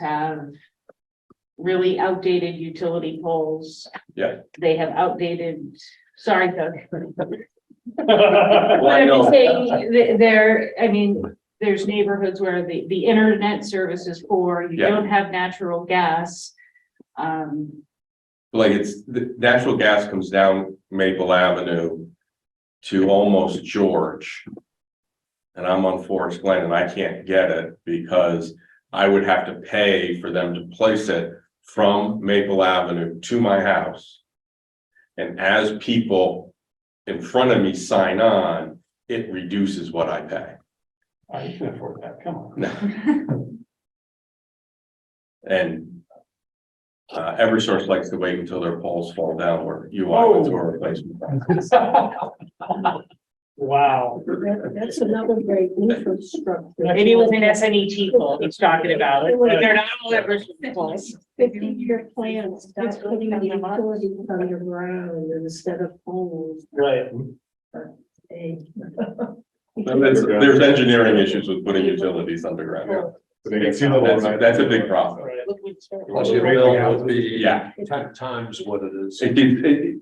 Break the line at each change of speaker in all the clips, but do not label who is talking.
have really outdated utility poles.
Yeah.
They have outdated, sorry, Doug.
Well,
But
I
I'm just
know.
saying, th- there, I mean, there's neighborhoods where the, the internet service is poor, you
Yeah.
don't have natural gas. Um,
Like it's, the natural gas comes down Maple Avenue to almost George. And I'm on Forest Glen and I can't get it because I would have to pay for them to place it from Maple Avenue to my house. And as people in front of me sign on, it reduces what I pay.
I Oh, can afford that, come on.
And uh, Eversource likes to wait until their poles fall down or you walk into a replacement.
Wow.
That's another great infrastructure.
maybe it was an S N E T pole he's talking about, it. they're not all ever poles.
Fifty-year plans, that's putting the utilities underground instead of poles.
Right.
eh?
There's, there's engineering issues with putting utilities underground.
They can see the low
That's,
light.
that's a big problem.
Plus you bill would be
Yeah,
ten times what it is.
it did, it,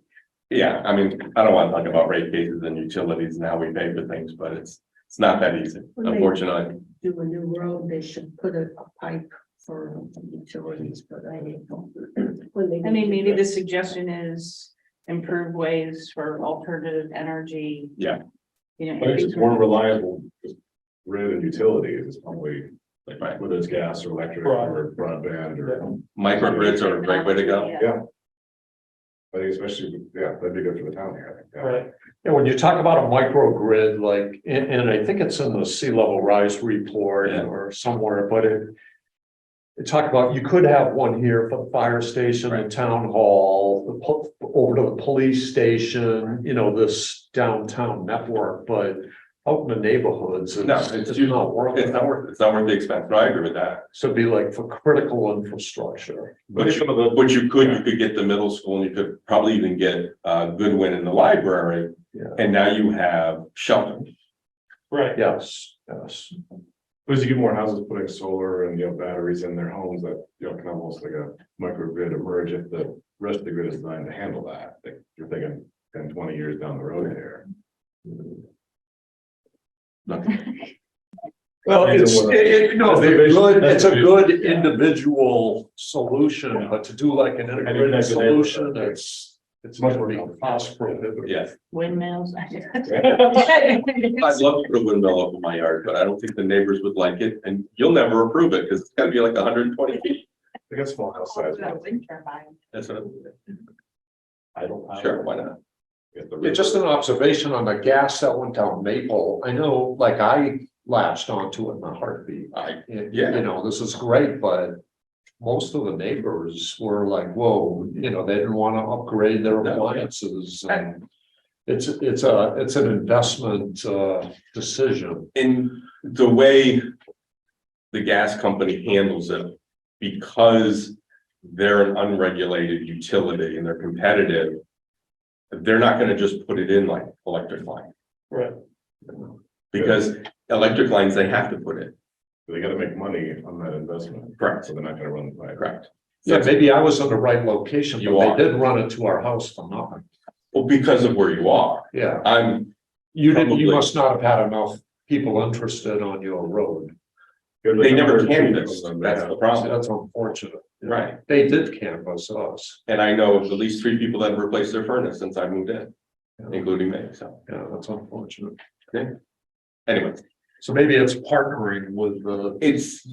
yeah, I mean, I don't want to talk about rate cases and utilities and how we pay for things, but it's, it's not that easy, unfortunately.
Do a new road, they should put a a pipe for utilities, but I didn't know.
I mean, maybe the suggestion is improve ways for alternative energy.
Yeah.
You know.
I think it's more reliable, just grid and utilities is probably,
Right.
like, whether it's gas or electric or broadband or.
Microgrids are a great way to go.
Yeah.
I think especially, yeah, that'd be good for the town here, I think. yeah.
Right,
And when you talk about a microgrid, like, and, and I think it's in the sea level rise report
Yeah.
or somewhere, but it. It talked about, you could have one here for the fire station, the
Right.
town hall, the po- over to the police station, you know, this downtown network, but. Out in the neighborhoods,
No,
it's
it's
it's
just-
not worth
It's
it.
not worth, it's not worth the expense, but I agree with that.
So it'd be like for critical infrastructure.
But some of the. But you could, you could get the middle school and you could probably even get uh Goodwin in the library.
Yeah.
And now you have Shelton.
right.
Yes, yes.
Plus you get more houses putting solar and, you know, batteries in their homes that, you know, can almost like a microgrid emerge if the rest of the grid is designed to handle that. Like, you're thinking 10, 20 years down the road here.
Well,
Depends
it's,
on what-
it, it- no,
That's the
they're
vision-
good,
that's
it's
the
a
vision,
good
yeah.
individual solution, but to do like an integrated
that's the neighborhood,
solution,
right.
it's. It's
Much
much more
more
cost prohibitive.
Yes,
Windmills.
I'd love to put a windmill up in my yard, but I don't think the neighbors would like it and you'll never approve it because it's gotta be like hundred and twenty feet.
I guess small house size.
That's what I'm,
I don't.
sure, why not?
Yeah, just an observation on the gas that went down Maple, I know, like I latched onto it in a heartbeat.
I,
You-
Yeah.
You know, this is great, but most of the neighbors were like, whoa, you know, they didn't want to upgrade their
No.
appliances and. It's, it's a, it's an investment, uh, decision.
in the way the gas company handles it, because they're an unregulated utility and they're competitive, they're not gonna just put it in like electric line.
Right.
Because electric lines, they have to put it,
They gotta make money on that investment,
correct,
so they're not gonna run the pipe.
correct.
Yeah, maybe I was in the right location,
You are.
but they did run it to our house for nothing.
Well, because of where you are,
Yeah,
I'm,
you didn't,
Probably.
you must not have had enough people interested on your road.
they never canvassed, that's the problem,
That's unfortunate.
right?
They did canvass us.
And I know of at least three people that have replaced their furnace since I moved in,
Yeah,
including me, so
that's unfortunate.
anyway,
So maybe it's partnering with the,
it's,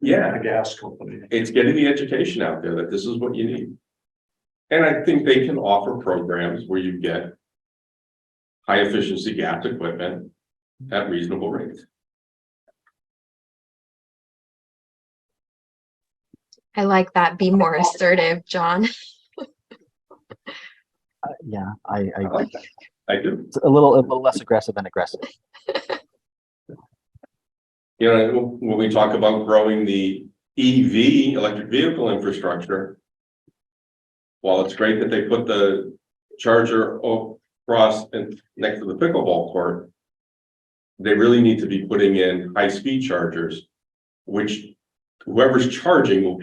yeah,
the gas company.
it's getting the education out there that this is what you need. And I think they can offer programs where you get high efficiency gas equipment at reasonable rates.
I like that. Be more assertive, John.
Uh, Yeah, I,
I
I,
like that. I do.
it's a little, a little less aggressive and aggressive.
You know, when we talk about growing the EV, electric vehicle infrastructure, while it's great that they put the charger across and next to the pickleball court, they really need to be putting in high-speed chargers, which whoever's charging will